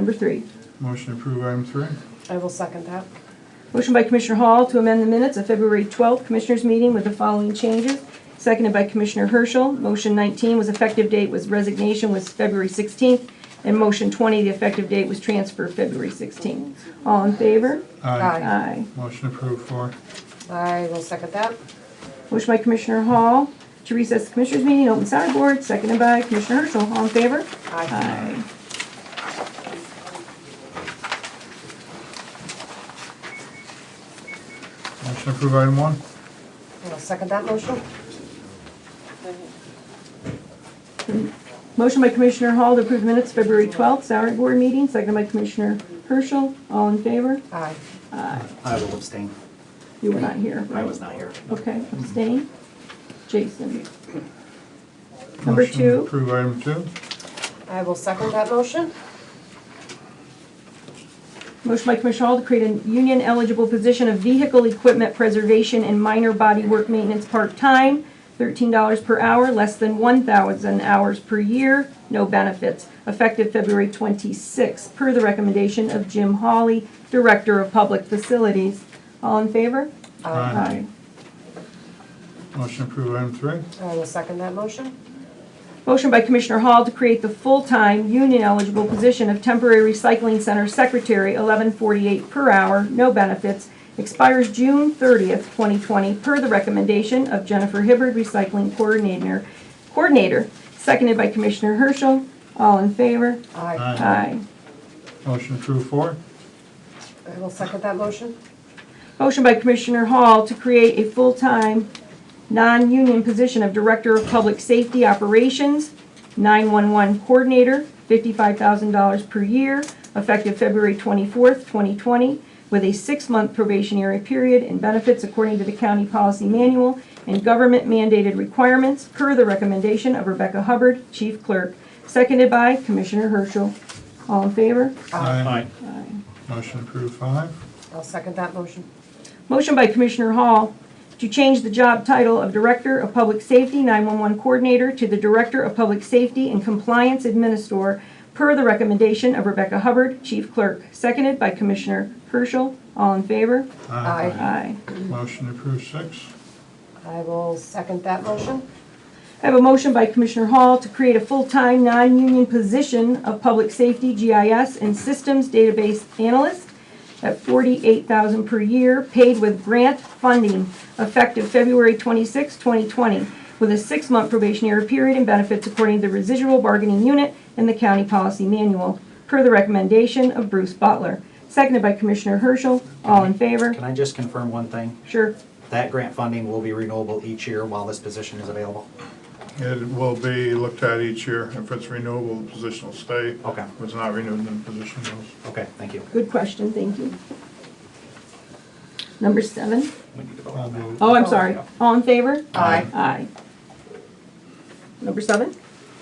Number three. Motion to approve item three. I will second that. Motion by Commissioner Hall to amend the minutes of February 12th Commissioners' Meeting with the following changes, seconded by Commissioner Herschel. Motion 19 was effective date was resignation was February 16th, and motion 20, the effective date was transfer February 16th. All in favor? Aye. Aye. Motion approved four. I will second that. Motion by Commissioner Hall to recess the Commissioners' Meeting, open salary board, seconded by Commissioner Herschel. All in favor? Aye. Aye. Motion to approve item one. I will second that motion. Motion by Commissioner Hall to approve minutes February 12th salary board meeting, seconded by Commissioner Herschel. All in favor? Aye. I will abstain. You were not here. I right? was not here. Okay, abstain. Jason. Number Motion to two. Approve item two. I will second that motion. Motion by Commissioner Hall to create a union eligible position of vehicle equipment preservation and minor body work maintenance part-time, $13 per hour, less than 1,000 hours per year, no benefits, effective February 26th, per the recommendation of Jim Hawley, Director of Public Facilities. All in favor? Aye. Motion to approve item three. I will second that motion. Motion by Commissioner Hall to create the full-time, union-eligible position of temporary recycling center secretary, eleven forty-eight per hour, no benefits, expires June thirtieth, twenty twenty, per the recommendation of Jennifer Hibbard, recycling coordinator, coordinator, seconded by Commissioner Herschel. All in favor? Aye. Aye. Aye. Motion to approve four. I will second that motion. Motion by Commissioner Hall to create a full-time, non-union position of Director of Public Safety Operations, 911 Coordinator, $55,000 per year, effective February 24th, 2020, with a six-month probationary period and benefits according to the county policy manual and government mandated requirements per the recommendation of Rebecca Hubbard, Chief Clerk, seconded by Commissioner Herschel. All in favor? Aye. Motion to approve five. I'll second that motion. Motion by Commissioner Hall to change the job title of Director of Public Safety 911 Coordinator to the Director of Public Safety and Compliance Administrator per the recommendation of Rebecca Hubbard, Chief Clerk, seconded by Commissioner Herschel. All in favor? Aye. Aye. Motion to approve six. I will second that motion. I have a motion by Commissioner Hall to create a full-time, non-union position of Public Safety GIS and Systems Database Analyst at $48,000 per year, paid with grant funding, effective February 26, 2020, with a six-month probationary period and benefits according to the residual bargaining unit and the county policy manual, per the recommendation of Bruce Butler. Seconded by Commissioner Herschel. All in favor? Can I just confirm one thing? Sure. That grant funding will be renewable each year while this position is available? It will be looked at each year. If it's renewable, the position will stay. Okay. If it's not renewed, then the position goes. Okay, thank you. Good question, thank you. Number seven. We need to vote I'll on that. vote. Oh, I'm sorry. All in favor? Aye. Aye. Number seven.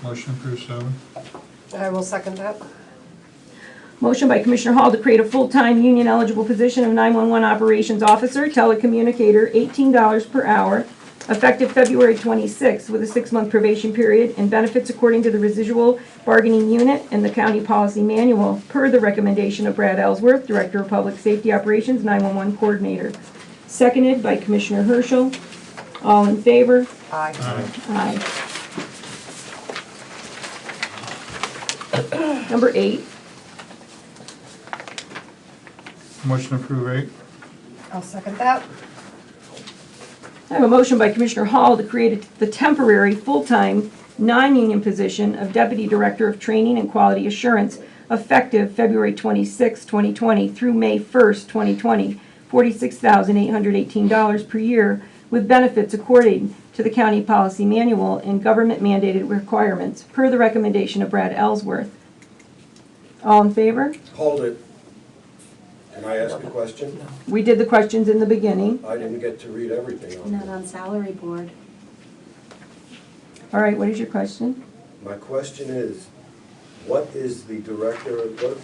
Motion to approve seven. I will second that. Motion by Commissioner Hall to create a full-time union-eligible position of 911 Operations Officer, telecommunicator, $18 per hour, effective February 26th, with a six-month probation period and benefits according to the residual bargaining unit and the county policy manual, per the recommendation of Brad Ellsworth, Director of Public Safety Operations, 911 Coordinator. Seconded by Commissioner Herschel. All in favor? Aye. Aye. Number eight, Motion to approve eight. I'll second that. I have a motion by Commissioner Hall to create the temporary, full-time, non-union position of Deputy Director of Training and Quality Assurance effective February 26, 2020 through May 1st, 2020, $46,818 per year with benefits according to the county policy manual and government mandated requirements per the recommendation of Brad Ellsworth. All in favor? Hold it. Can I ask a question? We did the questions in the beginning. I didn't get to read everything on Not it. on salary board. All right, what is your question? My question is, what is the director, what,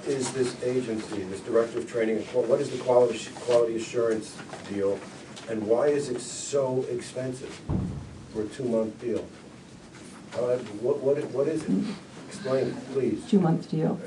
what is this agency, this director of training, and qual- what is the quality, quality assurance deal? And why is it so expensive for a two-month Uh, deal? How- What, what, what is it? Explain, please. Two-month deal.